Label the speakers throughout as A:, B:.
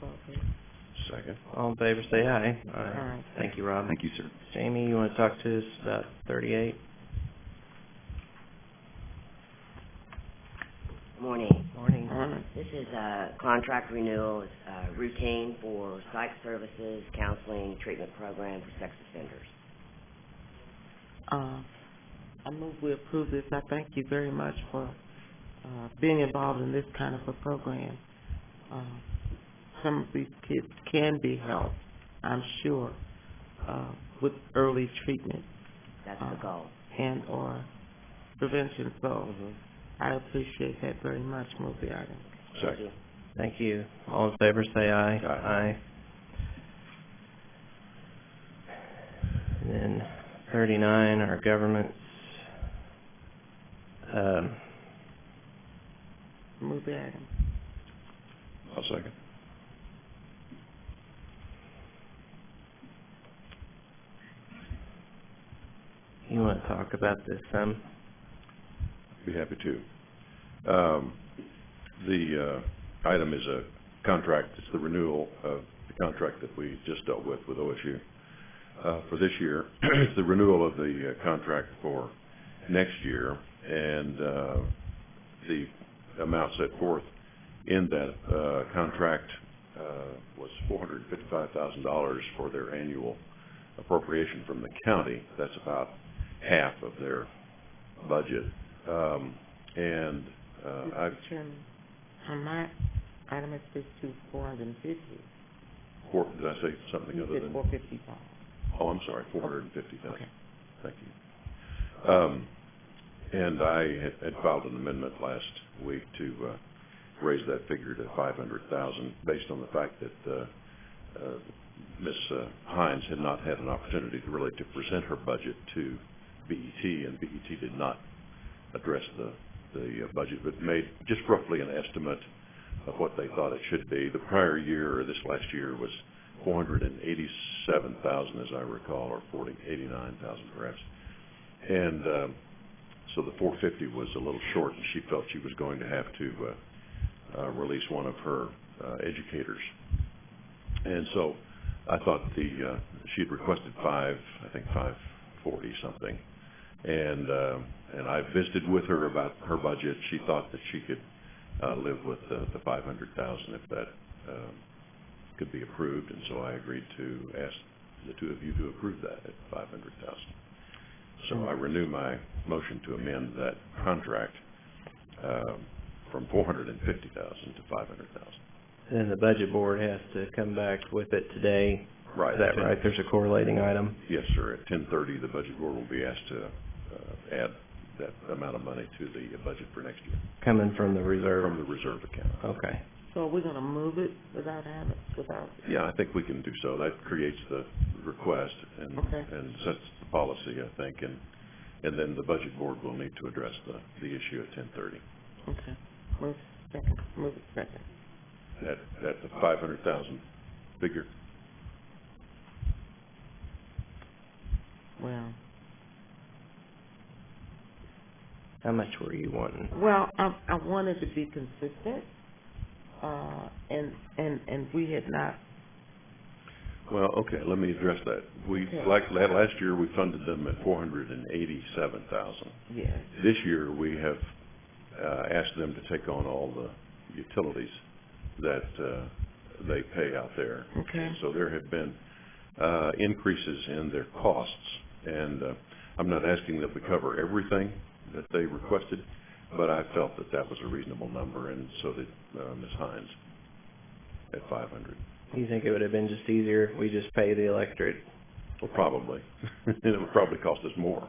A: vote, please.
B: Second.
C: All in favor, say aye.
A: Aye.
C: Thank you, Rob.
B: Thank you, sir.
C: Jamie, you wanna talk to us about thirty-eight?
D: Morning.
C: Morning.
A: Alright.
D: This is a contract renewal, it's uh, routine for psych services, counseling, treatment program for sex offenders.
A: Uh, I move we approve this. I thank you very much for, uh, being involved in this kind of a program. Uh, Some of these kids can be helped, I'm sure, uh, with early treatment
D: That's the
A: Uh-huh.
D: goal.
A: and/or prevention, so I appreciate that very much, move the item.
D: Thank you.
C: Thank you. All in favor, say aye.
B: Aye.
C: And Then thirty-nine, our governments. Um,
A: Move the item.
B: I'll second.
C: you wanna talk about this some?
B: Be happy to. Um, the, uh, item is a contract, it's the renewal of the contract that we just dealt with, with OSU. Uh, for this year, it's the renewal of the uh, contract for next year, and, uh, the amount set forth in that, uh, contract, uh, was four hundred and fifty-five thousand dollars for their annual appropriation from the county. That's about half of their budget. Um, and, uh, I've
A: Mr. Chairman, on Uh, my item, it says to four hundred and fifty.
B: Four, did I say something
A: You
B: other
A: said
B: than?
A: four fifty-five.
B: Oh, I'm sorry, four hundred and fifty
A: Okay.
B: thousand, thank you. Um, and I had- had filed an amendment last week to, uh, raise that figure to five hundred thousand, based on the fact that, uh, uh, Ms. Hines had not had an opportunity to really to present her budget to BET, and BET did not address the, the uh, budget, but made just roughly an estimate of what they thought it should be. The prior year, or this last year, was four hundred and eighty-seven thousand, as I recall, or forty, eighty-nine thousand perhaps. And, um, so the four fifty was a little short, and she felt she was going to have to, uh, uh, release one of her, uh, educators. And so I thought the, uh, she'd requested five, I think five forty something. And, uh, and I visited with her about her budget. She thought that she could, uh, live with the, the five hundred thousand if that, um, could be approved, and so I agreed to ask the two of you to approve that at five hundred thousand. So I renew my motion to amend that contract, um, from four hundred and fifty thousand to five hundred thousand.
C: Then the budget board has to come back with it today. Is that right? There's a correlating item.
B: Yes, sir. At ten thirty, the budget board will be asked to, uh, add that amount of money to the uh, budget for next year,
C: Coming from the
B: from
C: reserve.
B: the reserve account.
C: Okay.
A: So are we gonna move it without having, without,
B: Yeah, I think we can do so. That creates the request and,
A: Okay.
B: and sets the policy, I think, and, and then the budget board will need to address the, the issue at ten thirty.
A: okay, move second, move it second.
B: That, that's a five hundred thousand figure.
A: Well,
C: How much were you wanting?
A: well, I, I wanted to be consistent, uh, and, and, and we had not,
B: Well, okay, let me address that. We,
A: Okay.
B: like, la- last year, we funded them at four hundred and eighty-seven thousand.
A: yes,
B: This year, we have, uh, asked them to take on all the utilities that, uh, they pay out there.
A: okay,
B: So there have been, uh, increases in their costs, and, uh, I'm not asking that we cover everything that they requested, but I felt that that was a reasonable number, and so did, uh, Ms. Hines at five hundred.
C: Do you think it would have been just easier if we just pay the electorate?
B: Well, probably, and it would probably cost us more,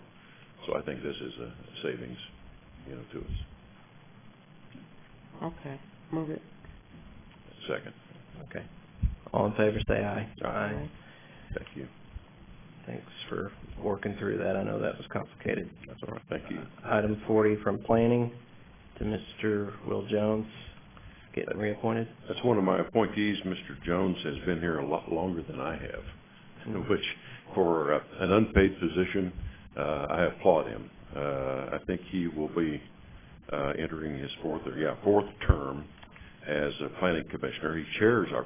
B: so I think this is a savings, you know, to us.
A: okay, move it.
B: Second,
C: Okay. All in favor, say aye.
B: Aye.
A: Aye.
B: thank you,
C: Thanks for working through that. I know that was complicated.
B: that's all right, thank you.
C: Item forty from planning to Mr. Will Jones, getting reappointed.
B: That's one of my appointees. Mr. Jones has been here a lot longer than I have, which for uh, an unpaid position, uh, I applaud him. Uh, I think he will be, uh, entering his fourth, or yeah, fourth term as a planning commissioner. He chairs our